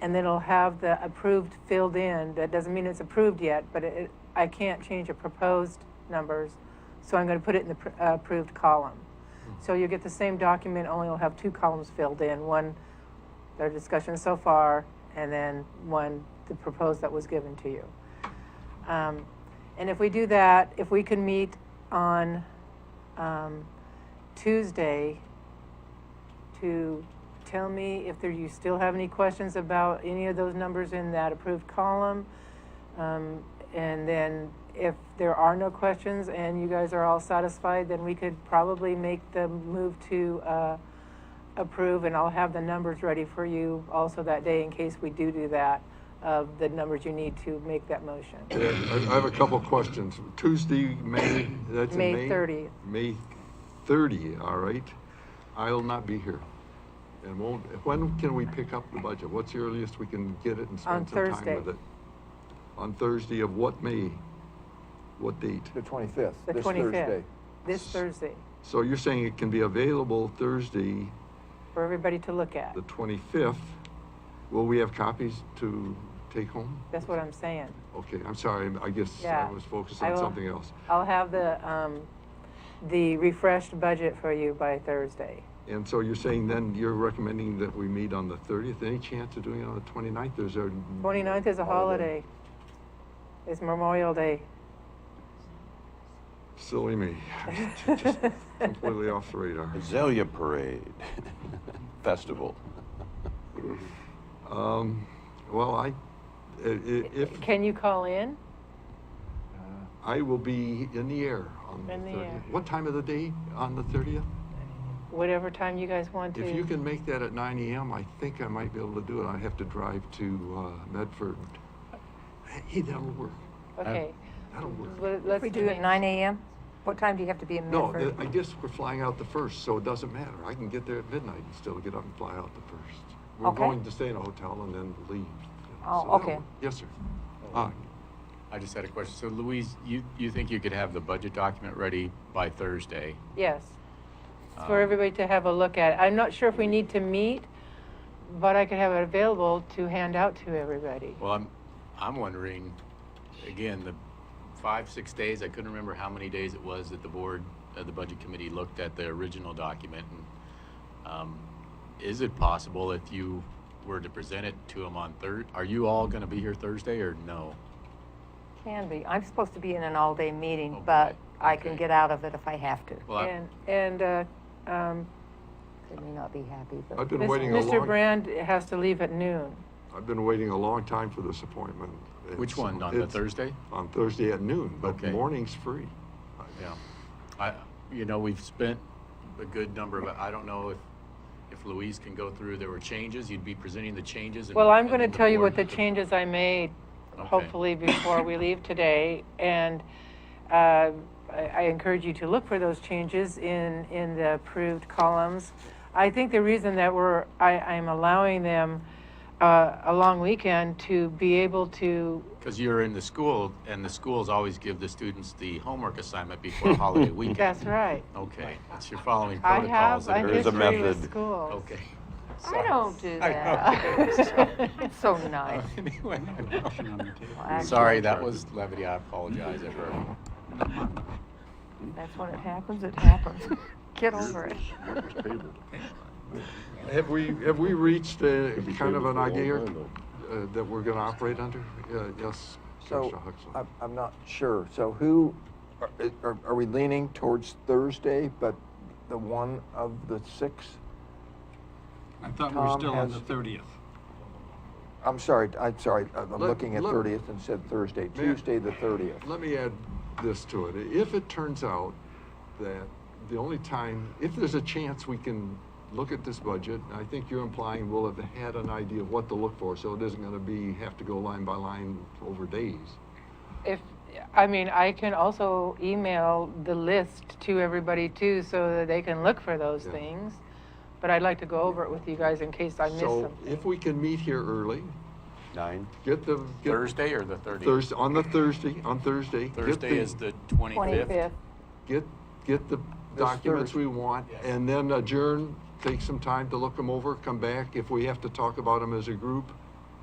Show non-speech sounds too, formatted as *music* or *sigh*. and then it'll have the approved filled in. That doesn't mean it's approved yet, but it, it- I can't change the proposed numbers, so I'm gonna put it in the pr- uh, approved column. So you'll get the same document, only it'll have two columns filled in, one, their discussion so far, and then one, the proposed that was given to you. Um, And if we do that, if we can meet on um, Tuesday to tell me if there, you still have any questions about any of those numbers in that approved column. Um, And then if there are no questions and you guys are all satisfied, then we could probably make the move to uh, approve. And I'll have the numbers ready for you also that day in case we do do that, of the numbers you need to make that motion. I I have a couple of questions. Tuesday, May, that's in May May? 30th. May 30, all right. I'll not be here. And won't, when can we pick up the budget? What's the earliest we can get it On and spend some Thursday. time with it? On Thursday of what May? What date? The 25th, The this 25th. Thursday. This Thursday, So you're saying it can be available Thursday, for everybody to look at. the 25th? Will we have copies to take home? That's what I'm saying. Okay, I'm sorry, I guess Yeah. I was focused I on will- something else. I'll have the, um, the refreshed budget for you by Thursday. And so you're saying then you're recommending that we meet on the 30th? Any chance of doing it on the 29th? There's a. 29th is a holiday. It's Memorial Day. Silly *laughs* me. Just Completely off the radar. Azalea Parade *laughs* Festival. Um, Well, I, i- i- if, Can you call in? I will be in the air on the In the air. 30th. What time of the day on the 30th? Whatever time you guys want to. If you can make that at 9 AM, I think I might be able to do it. I have to drive to uh, Medford. Uh, Hey, that'll work. Okay, That'll work. Let- If let's we do it nine. AM, what time do you have to be in No, Medford? I guess we're flying out the first, so it doesn't matter. I can get there at midnight and still get up and fly out the first. We're Okay. going to stay in a hotel and then leave. you know, Oh, so that'll okay. work. Yes, sir. Uh, I just had a question. So Louise, you, you think you could have the budget document ready by Thursday? Yes. It's Um, For everybody to have a look at. I'm not sure if we need to meet, but I could have it available to hand out to everybody. Well, I'm, I'm wondering, again, the five, six days, I couldn't remember how many days it was that the board, uh, the budget committee looked at the original document. And, um, is it possible if you were to present it to them on Thurs, are you all gonna be here Thursday or no? Can be. I'm supposed to be in an all-day meeting, Okay, but I can okay. get out of it if I have to. Well, I- And, and, uh, um, I may not be happy, I've but been waiting a Mr. long, Brand has to leave at noon. I've been waiting a long time for this appointment. which It's- one, on the it's Thursday? On Thursday at noon, but Okay. morning's free. Yeah, I, you know, we've spent a good number of, I don't know if, if Louise can go through, there were changes, you'd be presenting the changes. and- Well, I'm and going to then the tell you what board- the changes I made, Okay. hopefully before we leave today. And uh, I I encourage you to look for those changes in, in the approved columns. I think the reason that we're, I, I'm allowing them uh, a long weekend to be able to, Cause you're in the school and the schools always give the students the homework assignment before holiday weekend. that's right. Okay, it's your following I have protocols. a that There is a history with method. schools. Okay. I Sorry. don't do I that. *laughs* It's so nice. *laughs* Anyway, I know. Well, actually, Sorry, that was levity, I apologize, everyone. That's when it happens, it happens. *laughs* Get over it. *laughs* Have we, have we reached uh, kind of an idea Could be tabled uh, that we're going to operate under? Uh, Yes, So, Commissioner Huxley. uh, I'm, I'm not sure. So who, are- are, are we leaning towards Thursday, but the one of the six? I thought we were Tom still on has- the thirtieth. I'm sorry, I'm sorry, I'm Let- looking at let- 30th and said Thursday, Ma'am. Tuesday, the 30th. Let me add this to it. If it turns out that the only time, if there's a chance we can look at this budget, and I think you're implying we'll have had an idea of what to look for, so it isn't gonna be, have to go line by line over days. If, I mean, I can also email the list to everybody too, so that they can look for those Yeah. things. But I'd like to go over it with you guys in case I miss So if something. we can meet here early, Nine. get the, get Thursday or the thirtieth? Thursday, on the Thursday, on Thursday. get Thursday is the twenty-fifth. Get, get the documents we Thursday. want, Yes. and then adjourn, take some time to look them over, come back. If we have to talk about them as a group,